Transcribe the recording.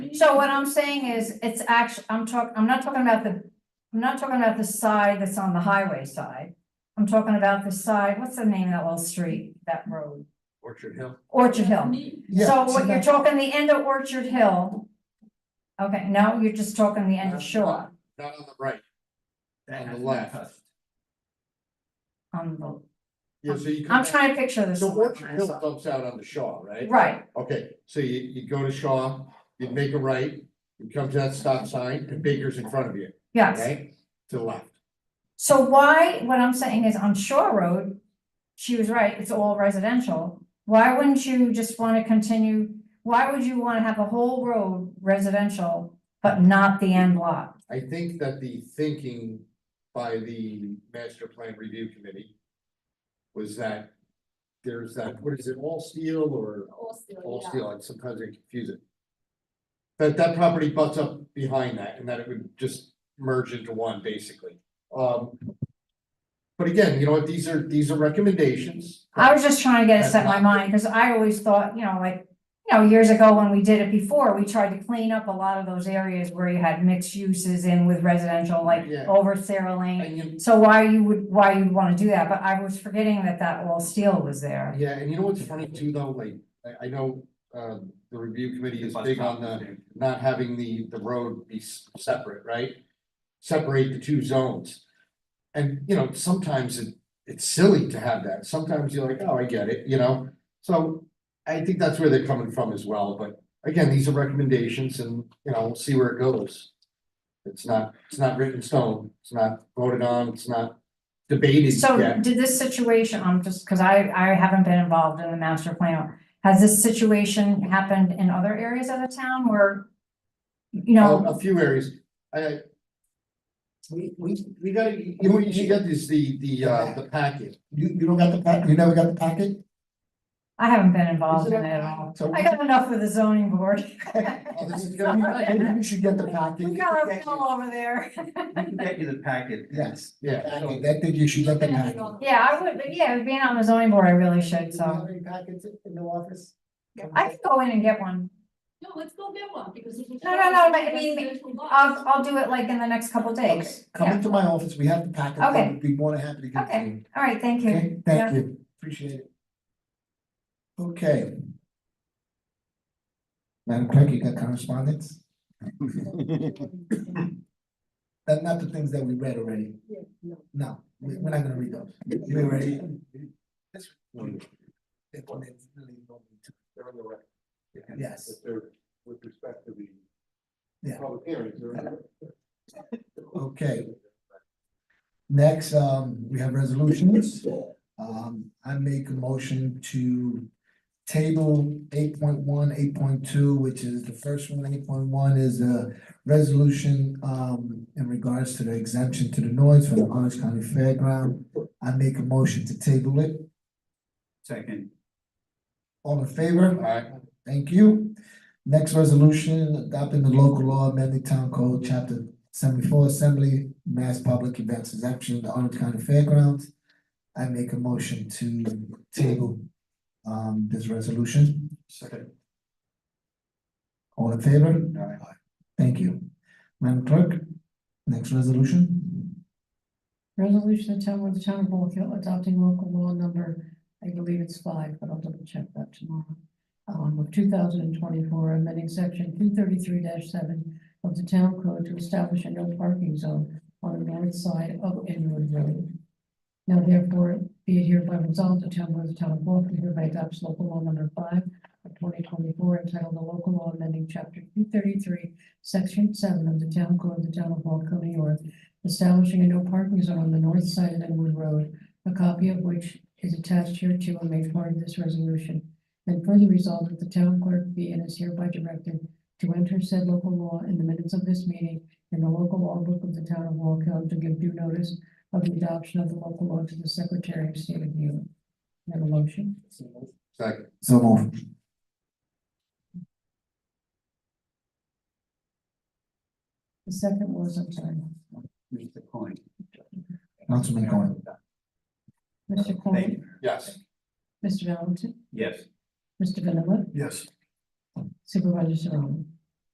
So what I'm saying is, it's actually, I'm talking, I'm not talking about the, I'm not talking about the side that's on the highway side. I'm talking about the side, what's the name of that little street, that road, Orchard Hill. Orchard Hill. Yeah, So so what you're that- talking, the end of Orchard Hill. Okay, no, you're just talking the end of Shore Not on the right, That on the has been left. touched. on the, yeah, so you I'm come, trying to picture this. so on my Orchard Hill side. dumps out on the Shaw, right? Right, Okay, so you, you go to Shaw, you make a right, you come to that stop sign, and Baker's in front of you, yes. right? To the left, So why, what I'm saying is on Shore Road, she was right, it's all residential. Why wouldn't you just wanna continue, why would you wanna have the whole road residential, but not the end lot? I think that the thinking by the master plan review committee. Was that there's that, what is it, all steel or all steel, and sometimes they confuse it. That that property butts up behind that and that it would just merge into one basically, um. But again, you know what, these are, these are recommendations. I was just trying to get it set in my mind, cause I always thought, you know, like, you know, years ago when we did it before, we tried to clean up a lot of those areas where you had mixed uses in with residential, like Yeah. over Sarah Lane. And you, So why you would, why you wanna do that, but I was forgetting that that all steel was there. yeah, and you know what's funny too though, like, I I know, uh, the review committee is Bus big on stop. the, not having the the road be s- separate, right? Separate the two zones. And, you know, sometimes it it's silly to have that, sometimes you're like, oh, I get it, you know? So I think that's where they're coming from as well, but again, these are recommendations and, you know, we'll see where it goes. It's not, it's not written in stone, it's not voted on, it's not debated So yet. did this situation, I'm just, because I, I haven't been involved in the master plan, has this situation happened in other areas of the town where? You Um, A know, a few areas, I We, we, we gotta, you, You know, what you should get is the, the, uh, the packet. you you don't got the pack, you never got the packet? I haven't been involved in it Oh, at all. So. I got enough with the zoning board. Oh, this is gonna be- Maybe you should get the packet. We got our fill over there. We can get you the packet. Yes, Yeah, so- packet, that thing you should get the packet. Yeah, I would, but yeah, being on the zoning board, I really should, so any packets in the office? um, I could go in and get one. No, let's go get one, because. No, No, no, no, but I mean, I'll, I'll do it like in the next couple days. Come into my office, we have the packet, Okay. I'd be more than happy to give it to Okay. you. All right, thank you. Okay, thank you, appreciate it. Okay. Madam Clerk, you got correspondence? That, not the things that we read already. Yeah, no. No, we- we're not gonna read those. You already? That one is really long. They're on the record. Yes. If they're with respect to the Yeah. public hearings, they're on the record. Okay. Next, um, we have resolutions. Um, I make a motion to table 8.1, 8.2, which is the first one, eight point one is a resolution, um, in regards to the exemption to the noise from the Orange County Fairground. I make a motion to table it. Second, All in favor? Alright, Thank you. Next resolution, adopting the local law amending town code, chapter seventy-four, assembly, mass public events exemption, the Orange County Fairgrounds. I make a motion to table um this resolution. second, All in favor? Aye. Thank you. Madam Clerk, next resolution? Resolution of town of the town of Bullock Hill adopting local law number, I believe it's five, but I'll double check that tomorrow. Um, of two thousand and twenty-four, amending section two thirty-three seven of the town code to establish a no parking zone on the north side of Inwood Road. Now therefore, be it hereby resolved, the town board of the town of Bullock Hill hereby adopts local law number five of twenty twenty-four entitled the local law amending chapter two thirty-three, section seven of the town code of the town of Bullock Hill, New York, establishing a no parking zone on the north side of Inwood Road, a copy of which is attached here to and made part of this resolution. And further resolved that the town clerk be and is hereby directed to enter said local law in the minutes of this meeting in the local law book of the town of Walk Hill to give due notice of the adoption of the local law to the Secretary of State of New York. Can I Have a motion? second, So move. The second was, I'm sorry, Mr. Coin. Councilman Cohen. Mr. Cohen, yes, Mr. Valentin, Yes, Mr. Vanilla, Yes. Supervisor Serrano.